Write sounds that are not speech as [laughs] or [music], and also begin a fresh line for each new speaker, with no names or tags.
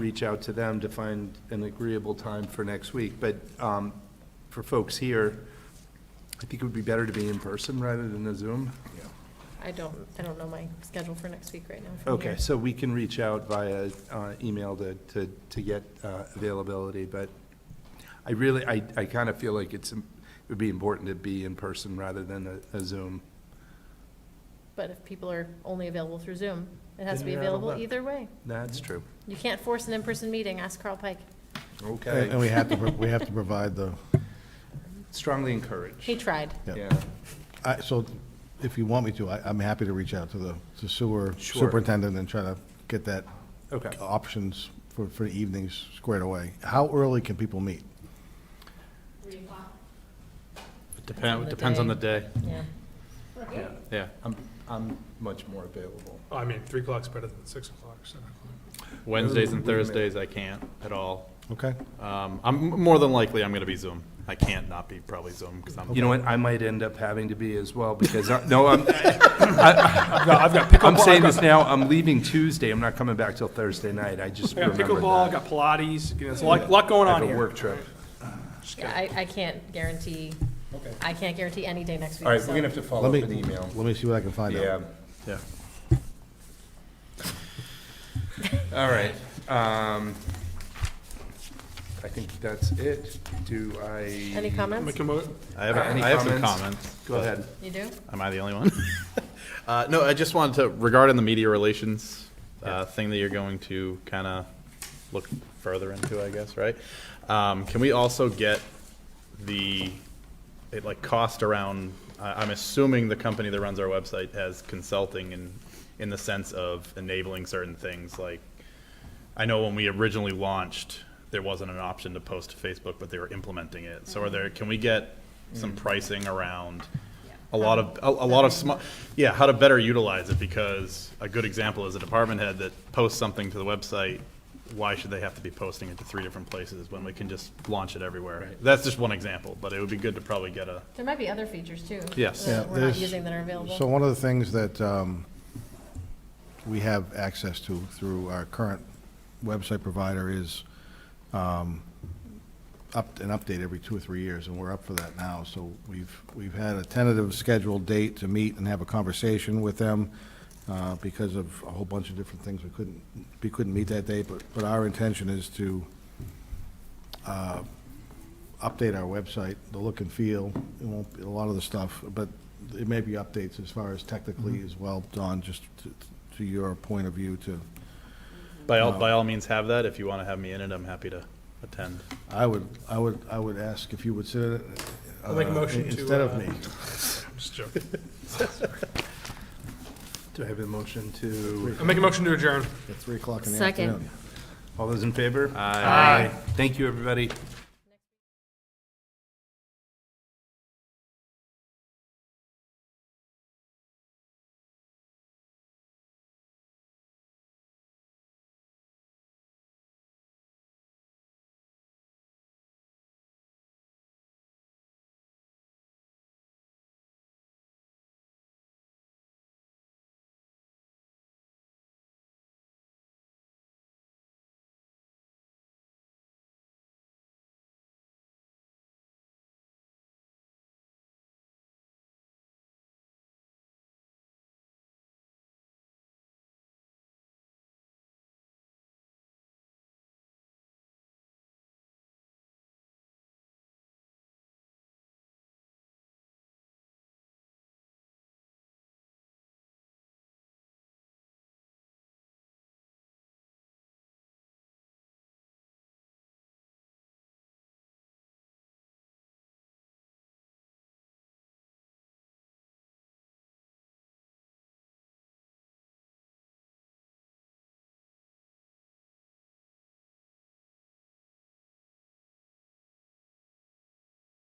reach out to them to find an agreeable time for next week. But um, for folks here, I think it would be better to be in person rather than a Zoom.
I don't, I don't know my schedule for next week right now. from
Okay,
here.
so we can reach out via uh, email to, to, to get uh, availability, but I really, I, I kind of feel like it's, im- it would be important to be in person rather than a a Zoom.
But if people are only available through Zoom, it has to be
Then you're out of
available
luck.
either way.
That's true.
You can't force an in-person meeting, ask Carl Pike.
Okay.
And and we have to, pro- we have to provide the,
Strongly encouraged.
He tried.
Yeah.
Yeah,
I, so if you want me to, I, I'm happy to reach out to the to sewer
Sure.
superintendent and try to get that
Okay.
options for, for the evenings squared away. How early can people meet?
on
Depend,
the
depends on
day.
the day,
Yeah.
yeah.
I'm, I'm much more available.
Well, I mean, three o'clock's better than six o'clock, seven o'clock.
Wednesdays and
Wait a minute.
Thursdays, I can't at all.
Okay?
Um, I'm, more than likely, I'm gonna be Zoom. I can't not be probably Zoom, because I'm.
You know what, I might end up having to be as well, because, I- no, I'm, [laughs] I-
I've got pickleball.
I'm saying
I've
this now, I'm leaving Tuesday, I'm not coming back till Thursday night, I just
got- I've
remembered that.
got pickleball, I've got Pilates, you know, there's a lot, lot going
I
on
have a
here.
work trip.
Yeah, I, I can't guarantee,
Okay.
I can't guarantee any day next week.
All right, we're
so-
gonna have to follow
Let
up
me,
an email.
let me see what I can find
Yeah,
out.
Yeah.
all right. Um, I think that's it. Do I?
Any comments?
Make a mo-
I have,
Any
I have some
comments?
comments.
Go ahead.
You do?
Am I the only one? [laughs] Uh, no, I just wanted to, regarding the media relations,
Yeah.
uh, thing that you're going to kind of look further into, I guess, right? Um, can we also get the, it like cost around, I, I'm assuming the company that runs our website has consulting in, in the sense of enabling certain things, like, I know when we originally launched, there wasn't an option to post to Facebook, but they were implementing it. So are there, can we get some pricing around a lot of, a, a lot of small, yeah, how to better utilize it? Because a good example is a department head that posts something to the website, why should they have to be posting it to three different places when we can just launch it everywhere? That's just one example, but it would be good to probably get a,
There might be other features too.
Yes.
Yeah,
That we're not
there's-
using that are
So
available.
one of the things that um, we have access to through our current website provider is um, up, an update every two or three years, and we're up for that now. So we've, we've had a tentative scheduled date to meet and have a conversation with them uh, because of a whole bunch of different things. We couldn't, we couldn't meet that date, but, but our intention is to update our website, the look and feel, it won't, be a lot of the stuff, but it may be updates as far as technically as well, Don, just to, to your point of view to,
by all, by all means have that. If you want to have me in it, I'm happy to attend.
I would, I would, I would ask if you would sit, uh,
I'll make a motion to,
Instead of
uh,
me.
I'm just [laughs] joking.
Do I have a motion to,
I'll make a motion to adjourn.
At three o'clock in the
Second.
afternoon.
all those in favor?
Aye.
Thank you, everybody.